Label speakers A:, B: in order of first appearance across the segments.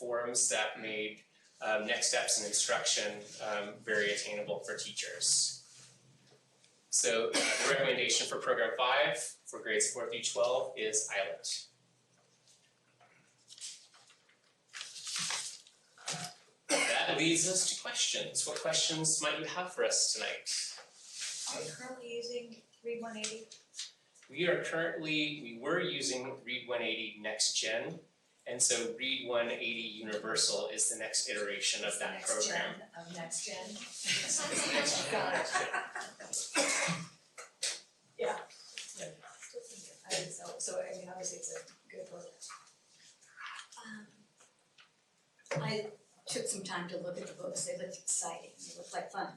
A: forums that made um, next steps in instruction um, very attainable for teachers. So uh, the recommendation for program five for grades four through twelve is Islet. That leads us to questions. What questions might you have for us tonight?
B: Are you currently using read one eighty?
A: We are currently, we were using Read 180 Next Gen, and so Read 180 Universal is the next iteration of that program.
B: Of next gen.
A: Next gen.
B: Got it. Yeah.
A: Yeah.
B: I think so, so I mean, obviously it's a good program.
C: Um, I took some time to look at the books, they looked exciting, they looked like fun.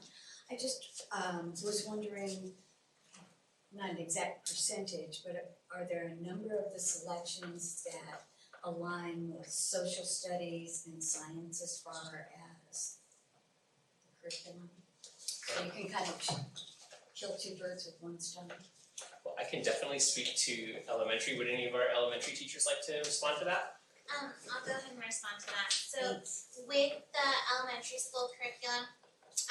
C: I just um was wondering, not an exact percentage, but are there a number of the selections that align with social studies and science as far as the curriculum? So you can kind of ch- kill two birds with one stone.
A: Well, I can definitely speak to elementary. Would any of our elementary teachers like to respond to that?
D: Um, I'll go ahead and respond to that. So with the elementary school curriculum,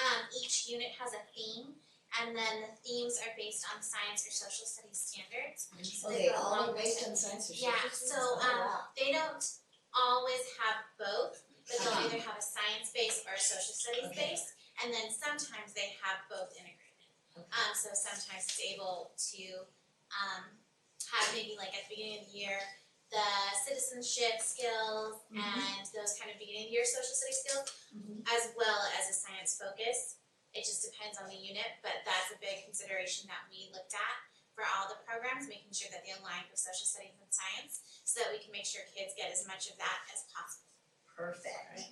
D: um, each unit has a theme, and then the themes are based on science or social studies standards. So
C: Are
D: they
C: they
D: go
C: all
D: along
C: are
D: with
C: based
D: it.
C: on science or social
D: Yeah, so,
C: studies? Oh,
D: um,
C: wow.
D: They don't always have both, but
C: Uh-huh.
D: they'll either have a science base or a social studies
C: Okay.
D: base, and then sometimes they have both in agreement.
C: Okay.
D: Um, so sometimes it's able to, um, have maybe like at the beginning of the year, the citizenship skills
C: Mhm.
D: and those kind of beginning of year social studies skills,
C: Mhm.
D: as well as a science focus. It just depends on the unit, but that's a big consideration that we looked at for all the programs, making sure that they align with social studies and science, so that we can make sure kids get as much of that as possible.
C: Perfect.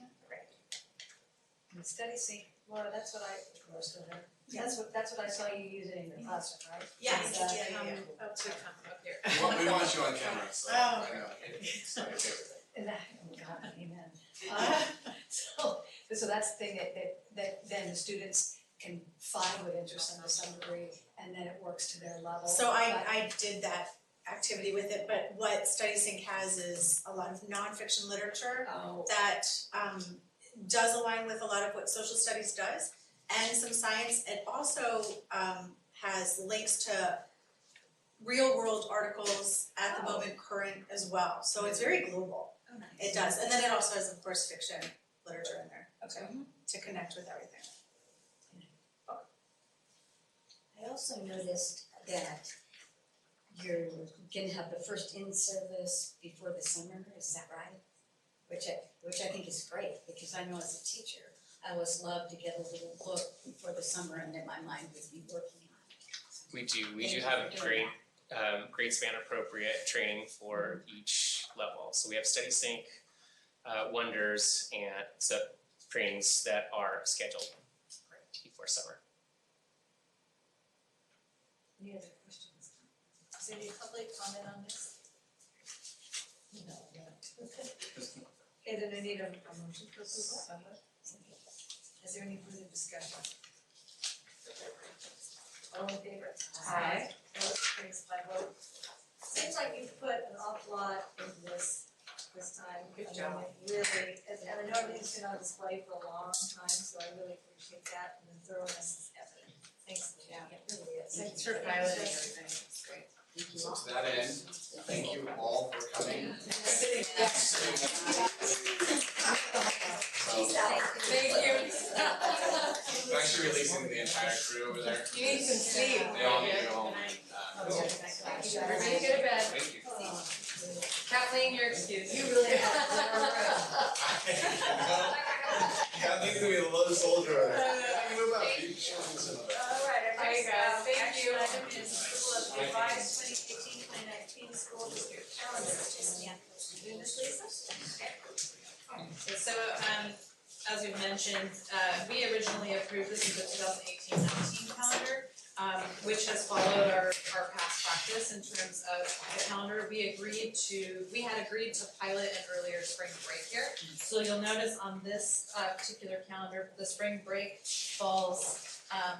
B: And study sync, Laura, that's what I, Laura's still there. That's what, that's what I saw you using in the classroom, right?
E: Mm-hmm.
B: uh,
E: Yeah,
B: Is
E: yeah, um,
B: that-
E: yeah, yeah.
B: up
E: to
B: to-
E: come up here.
F: Well, we want you on camera, so I know. It's my favorite thing.
B: And that, oh God, amen. Uh, So, so that's the thing that, that, that then the students can find what interests them to some degree, and then it works to their level.
E: So I
B: but-
E: I did that activity with it, but what Study Sync has is a lot of nonfiction literature
B: Oh,
E: that um does align with a lot of what social studies does and some science. It also um has links to real world articles at the
B: Oh.
E: moment current as well. So it's very global.
C: Oh, nice.
E: It does. And then it also has of course fiction literature in there
B: okay.
E: to connect with everything.
C: I also noticed that you're gonna have the first in-service before the summer, is that right? Which I, which I think is great, because I know as a teacher, I always love to get a little look before the summer and that my mind would be working on.
A: We do, we
C: Thank
A: do
C: you
A: have
C: for
A: a
C: doing
A: great, um, grade span appropriate training for each level. So we have Study Sync, uh, Wonders, and sub trainings that are scheduled for summer.
B: Any other questions? Is there any public comment on this? No, not. Okay, then I need a, a motion to approve that. Is there any further discussion? All in favor? Aye. Opposed, carries by vote. Seems like you've put an awful lot in this, this time. Good job. Really, and and I know everything's been on display for a long time, so I really appreciate that and the thoroughness is evident. Thanks, Leanne. It really is.
C: Thanks
E: for
B: piloting
E: everything. It's great.
C: Thank you
F: So
C: all.
F: to that end, thank you all for coming. So, I'm actually releasing the entire crew over there.
E: You need some sleep.
F: They all need to go home. Uh,
B: Oh,
C: Thank you.
G: Everybody go to bed.
F: Thank you.
G: Kathleen, your excuse.
B: You really
F: Uh, I think we a little soldier over there. I can move up. You show me some of that.
B: Alright,
G: All right, guys. Thank you.
B: uh, Action item is approval of the revised 2018-2019 school district calendar, just, yeah. Do this, Lisa?
G: So, um, as we've mentioned, uh, we originally approved this as the 2018-19 calendar, um, which has followed our, our past practice in terms of the calendar. We agreed to, we had agreed to pilot an earlier spring break here. So you'll notice on this, uh, particular calendar, the spring break falls, um,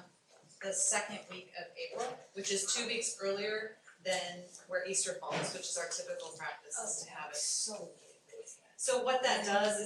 G: the second week of April, which is two weeks earlier than where Easter falls, which is our typical practice, is to have it.
C: So
G: So what that does is